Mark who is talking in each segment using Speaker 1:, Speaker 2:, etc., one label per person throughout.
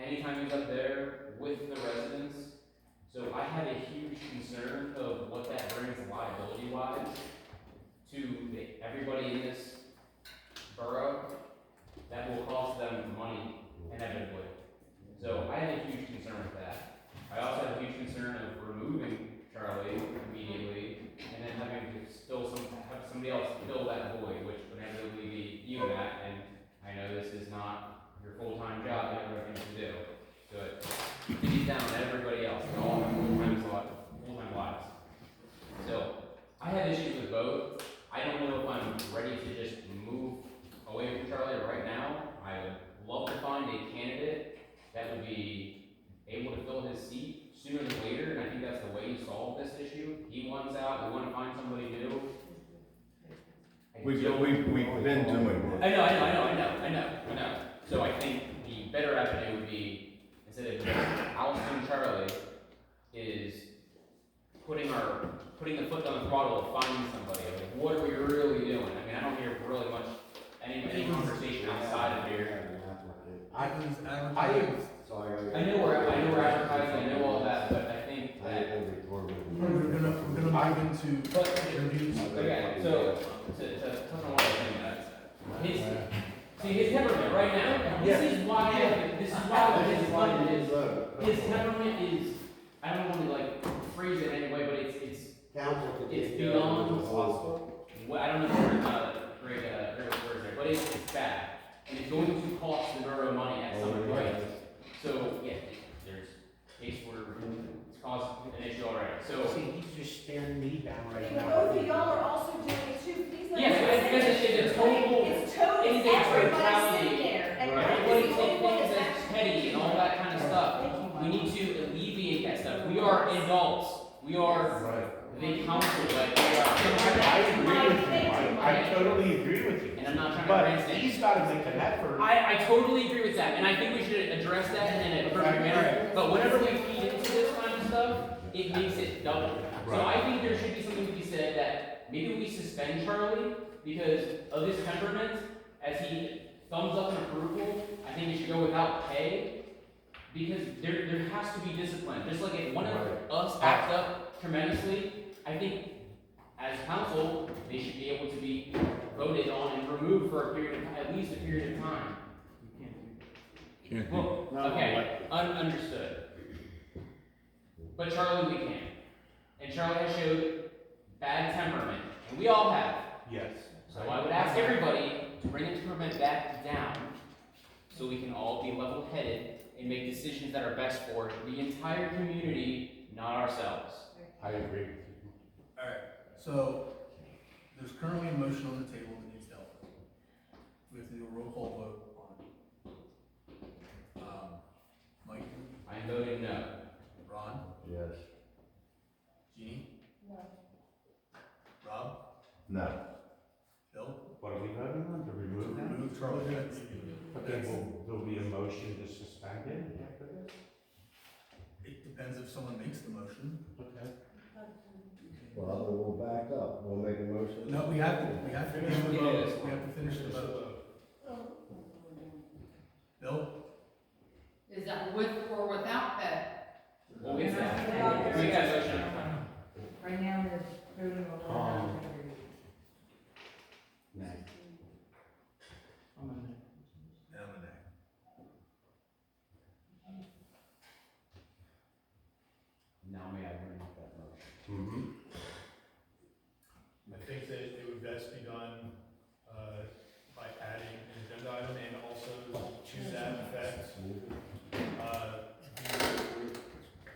Speaker 1: anytime it was up there with the residents. So I had a huge concern of what that brings liability wise to the- everybody in this borough that will cost them money inevitably. So I had a huge concern with that. I also had a huge concern of removing Charlie immediately and then having to still some, have somebody else fill that void, which would inevitably be you, Matt, and I know this is not your full-time job, you have other things to do. So it beat down on everybody else, and all my full-time slots, full-time lives. So I have issues with both. I don't know if I'm ready to just move away from Charlie right now. I would love to find a candidate that would be able to fill his seat sooner than later, and I think that's the way you solve this issue. He wants out, we wanna find somebody new. I
Speaker 2: We've,
Speaker 1: don't-
Speaker 2: we've, we've been doing
Speaker 1: I
Speaker 2: it.
Speaker 1: know, I know, I know, I know, I know, I know. So I think the better avenue would be, instead of ousting Charlie, is putting our, putting the foot on the throttle of finding somebody, like, what are we really doing? I mean, I don't hear really much, any, any conversation outside of here.
Speaker 3: I can, I
Speaker 1: I
Speaker 3: can.
Speaker 1: am-
Speaker 3: Sorry.
Speaker 1: I know we're, I know we're advertising, I know all that, but I think
Speaker 3: I
Speaker 1: that,
Speaker 3: am recording.
Speaker 4: We're gonna, we're gonna move into
Speaker 1: but,
Speaker 4: interviews.
Speaker 1: okay, so, to, to touch on what I think his, see, his temperament right now, this is why, this is why, this is why it is. His temperament is, I don't want to like phrase it anyway, but it's, it's,
Speaker 3: Council can
Speaker 1: It's
Speaker 3: take
Speaker 1: beyond-
Speaker 3: over the hospital.
Speaker 1: well, I don't know if we're gonna break a, break a word uh, there, but it's, it's bad. And it's going to cost the borough money at
Speaker 5: Oh,
Speaker 1: some point. So, yeah, there's, case where it's caused an issue already, so.
Speaker 3: See, he's just staring me down
Speaker 6: But
Speaker 3: right now.
Speaker 6: both of y'all are also doing it too, please let me
Speaker 1: Yes,
Speaker 6: say
Speaker 1: but it's,
Speaker 6: it.
Speaker 1: it's a total,
Speaker 6: It's total,
Speaker 1: it's a
Speaker 6: everybody's
Speaker 1: totality.
Speaker 6: sitting there, and
Speaker 3: Right.
Speaker 6: Mike
Speaker 1: everybody
Speaker 6: is the
Speaker 1: take
Speaker 6: only one
Speaker 1: things
Speaker 6: that's
Speaker 1: as petty
Speaker 6: actually.
Speaker 1: and all that kind of stuff. We need to alleviate that stuff. We are adults. We are
Speaker 3: Right.
Speaker 1: the council, like, we are.
Speaker 5: I agree with you, Mike. I totally agree with you.
Speaker 1: And I'm not trying to
Speaker 5: But
Speaker 1: grandstand.
Speaker 5: he's gotta make an effort.
Speaker 1: I, I totally agree with that, and I think we should address that in an appropriate manner. But whenever we feed into this kind of stuff, it makes it double. So I think there should be something to be said that maybe we suspend Charlie because of his temperament, as he thumbs up in approval. I think it should go without pay because there there has to be discipline. Just like if one of us acts up tremendously, I think as council they should be able to be voted on and removed for a period of at least a period of time. Well, okay, un- understood. But Charlie, we can. And Charlie has showed bad temperament, and we all have.
Speaker 5: Yes.
Speaker 1: So I would ask everybody to bring the temperament back down, so we can all be level-headed and make decisions that are best for the entire community, not ourselves.
Speaker 3: I agree.
Speaker 4: So, there's currently a motion on the table that needs dealt with. We have to do a roll call vote on it. Um, Mike,
Speaker 1: I voted no.
Speaker 4: Ron,
Speaker 3: Yes.
Speaker 4: Jeannie,
Speaker 6: No.
Speaker 4: Rob,
Speaker 2: No.
Speaker 4: Bill,
Speaker 5: What are we voting on, to
Speaker 4: to
Speaker 5: remove that?
Speaker 4: remove Charlie Pitts.
Speaker 5: Okay, well, there'll be a motion to suspend it after this?
Speaker 4: It depends if someone makes the motion.
Speaker 5: Okay.
Speaker 3: Well, then we'll back up, we'll make a motion.
Speaker 4: No, we have to, we have to finish the vote, we have to finish the vote. Bill,
Speaker 7: Is that with or without pay?
Speaker 1: Well, we have that.
Speaker 6: Yeah.
Speaker 1: We got a motion on the floor.
Speaker 8: Right now, they're voting on one
Speaker 5: Um,
Speaker 8: hundred.
Speaker 3: Nay.
Speaker 4: and I'm a nay.
Speaker 1: Now may I bring up that motion?
Speaker 5: Mm-hmm.
Speaker 9: I think that it would best be done, uh, by adding an agenda item and also to that effect, uh,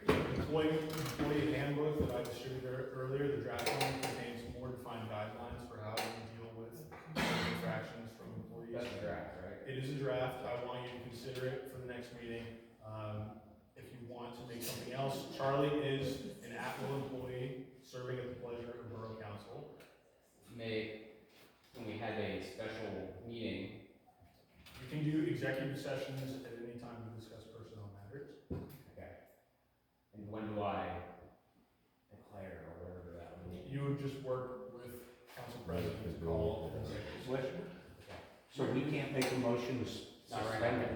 Speaker 9: the employee, employee handbook that I distributed earlier, the draft one contains more defined guidelines for how you deal with infractions from employees.
Speaker 1: That's a draft, right?
Speaker 9: It is a draft, I want you to consider it for the next meeting. Um, if you want to make something else, Charlie is an Apple employee serving at the pleasure of Borough Council.
Speaker 1: May, when we had a special meeting,
Speaker 9: You can do executive sessions at any time to discuss personnel matters.
Speaker 1: and when do I declare or whatever that would mean?
Speaker 9: You would just work with council president to call an executive session.
Speaker 5: So we can't make a motion to s-
Speaker 1: Not right
Speaker 5: suspend